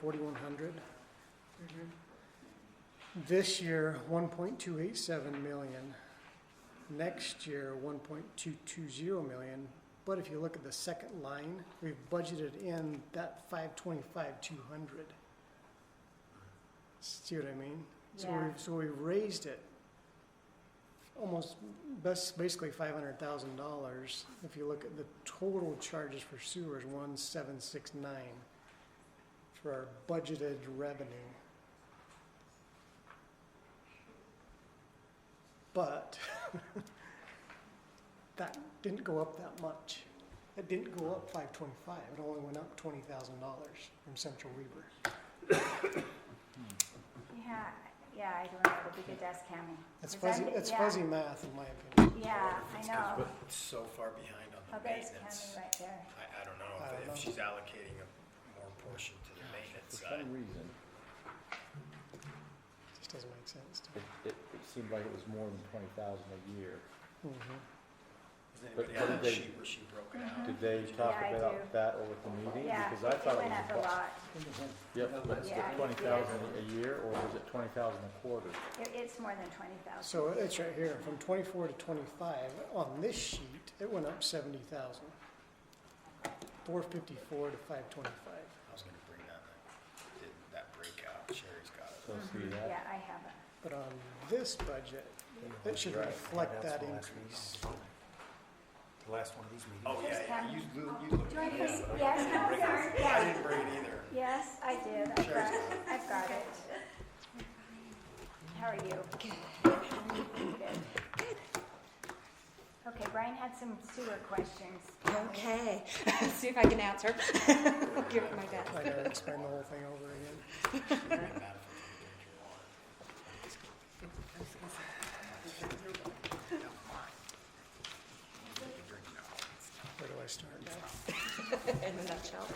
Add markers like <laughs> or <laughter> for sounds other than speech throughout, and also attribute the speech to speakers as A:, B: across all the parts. A: 4,100.
B: Mm-hmm.
A: This year, 1.287 million. Next year, 1.220 million. But if you look at the second line, we've budgeted in that 525, 200. See what I mean? So
B: Yeah.
A: we've, so we've raised it almost, best, basically $500,000. If you look at the total charges for sewers, 1,769 for our budgeted revenue. But <laughs> that didn't go up that much. It didn't go up five twenty-five, it only went up twenty thousand dollars from Central Weaver.
B: Yeah, yeah, I don't know, it'll be good to ask Cammy.
A: It's
B: 'Cause I
A: fuzzy,
B: did-
A: it's
B: yeah,
A: fuzzy math in my opinion.
B: Yeah, I
C: It's 'cause
B: know.
C: we're So far behind on
B: Oh,
C: the
B: there's
C: maintenance.
B: Cammy right there.
C: I, I don't know
A: I don't
C: if-
A: know.
C: if she's allocating a more portion to the maintenance
D: For
C: side.
D: some reason,
A: Just doesn't make sense to
D: it, it it seemed like it was more than twenty thousand a year.
A: me. Mhm.
C: Does anybody
D: but
C: have that
D: they-
C: sheet where she broke it
B: Mm-hmm.
C: out?
D: Did they talk
B: Yeah, I do.
D: about that over at the meeting?
B: Yeah,
D: Because I
B: it
D: thought
B: went up a
D: was
B: lot.
D: Yep, was
B: Yeah, I
D: it
B: did.
D: twenty thousand a year or was it twenty thousand a quarter?
B: It, it's more than twenty thousand.
A: So it's right here, from twenty-four to twenty-five, on this sheet, it went up seventy thousand. Four fifty-four to five twenty-five.
C: I was gonna bring that, up. did that breakout, Sherry's got
D: So
C: it. Oh,
D: see
B: Yeah,
D: that?
B: I have it.
A: But on this budget, it should
D: Right.
A: reflect that increase.
E: The last one of these meetings.
C: Oh, yeah,
B: Here's
C: yeah, you,
B: Kevin.
C: lo- you looked
B: Do I
C: at it
B: press-
C: up.
B: yes,
C: I didn't
B: no,
C: bring
B: sorry,
C: it.
B: yeah.
C: I didn't bring it either.
B: Yes, I did, I've got it, I've got it. How are you? Good. Okay, Brian had some sewer questions.
F: Okay, see if I can <laughs> answer. I'll give it my best.
A: I gotta explain the whole thing over again.
C: Wouldn't matter if I didn't drink your water.
A: Where do I start?
F: <laughs> In a nutshell.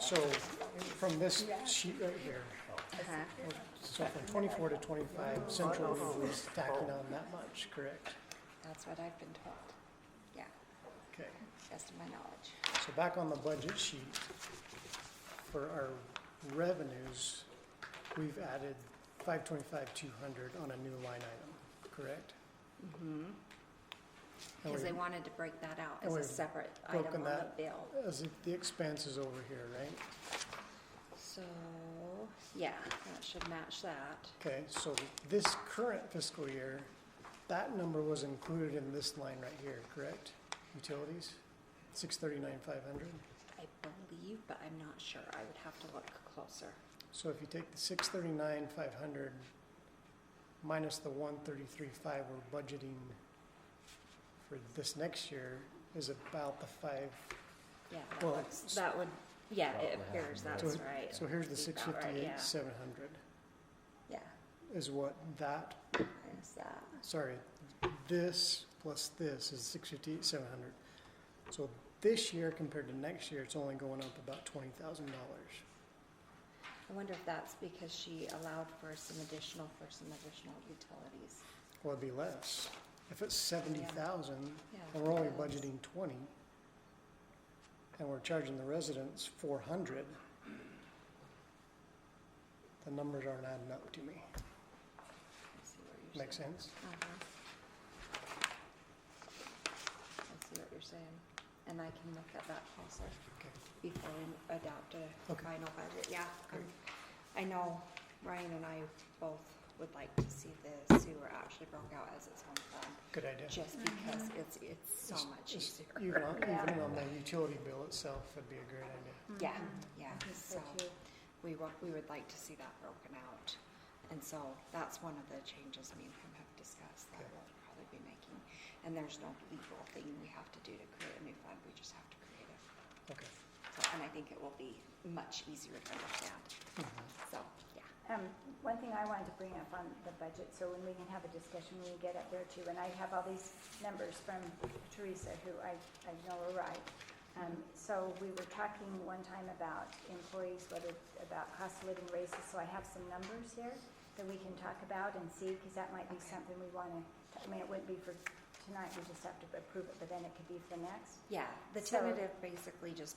A: So from this sheet right here,
F: Uh-huh.
A: so from twenty-four to twenty-five, Central Weaver was tacking on that much, correct?
F: That's what I've been told. Yeah,
A: Okay,
F: best of my knowledge.
A: so back on the budget sheet, for our revenues, we've added five twenty-five, two hundred on a new line item, correct? And
F: Mm-hmm. Because they
A: we've-
F: wanted to break that out
A: And
F: as a
A: we've
F: separate item
A: Oh, broken
F: on the
A: that.
F: bill.
A: As if the expense is over here, right?
F: So, yeah, that should match that.
A: Okay, so this current fiscal year, that number was included in this line right here, correct? Utilities, six thirty-nine, five hundred.
F: I believe, but I'm not sure. I would have to look closer.
A: So if you take the six thirty-nine, five hundred minus the one thirty-three, five we're budgeting for this next year is about the five.
F: Yeah, that
A: Well,
F: looks, that would, yeah, it
D: Probably
F: appears
D: happened,
F: that's
A: yeah.
F: right.
A: So here's the six
F: About right, yeah.
A: fifty-eight, seven hundred
F: Yeah,
A: is what that,
F: there's that.
A: sorry, this plus this is six fifty-eight, seven hundred. So this year compared to next year, it's only going up about twenty thousand dollars.
F: I wonder if that's because she allowed for some additional, for some additional utilities.
A: Well, it'd be less. If it's seventy thousand,
F: Yeah.
A: and we're only budgeting twenty, and we're charging the residents four hundred, the numbers aren't adding up to me.
F: I see what you're
A: Make
F: saying.
A: sense?
F: Uh-huh. I see what you're saying, and I can look at that closer
A: Okay.
F: before we adopt a
A: Okay.
F: final budget, yeah. um,
A: Great.
F: I know Ryan and I both would like to see the sewer actually broke out as its own fund,
A: Good idea.
F: just because it's, it's so
A: Just-
F: much
A: just
F: easier.
A: Even on,
B: Yeah.
A: even on the utility bill itself would be a great idea.
F: <laughs> Yeah, yeah,
B: So
F: so
B: Mm-hmm. too.
F: we wa- we would like to see that broken out. And so that's one of the changes me and him have discussed that
A: Okay.
F: we'll probably be making. And there's no legal thing we have to do to create a new fund, we just have to create it.
A: Okay.
F: So, and I think it will be much easier to understand, so, yeah.
B: Um, one thing I wanted to bring up on the budget, so when we can have a discussion when we get up there too, and I have all these numbers from Teresa, who I, I know are right. Um, so we were talking one time about employees, whether, about cost of living raises, so I have some numbers here that we can talk about and see, cause that might be something we wanna, I mean, it wouldn't be for tonight we just have to approve it, but then it could be for next?
F: Yeah, the
B: So-
F: tentative basically just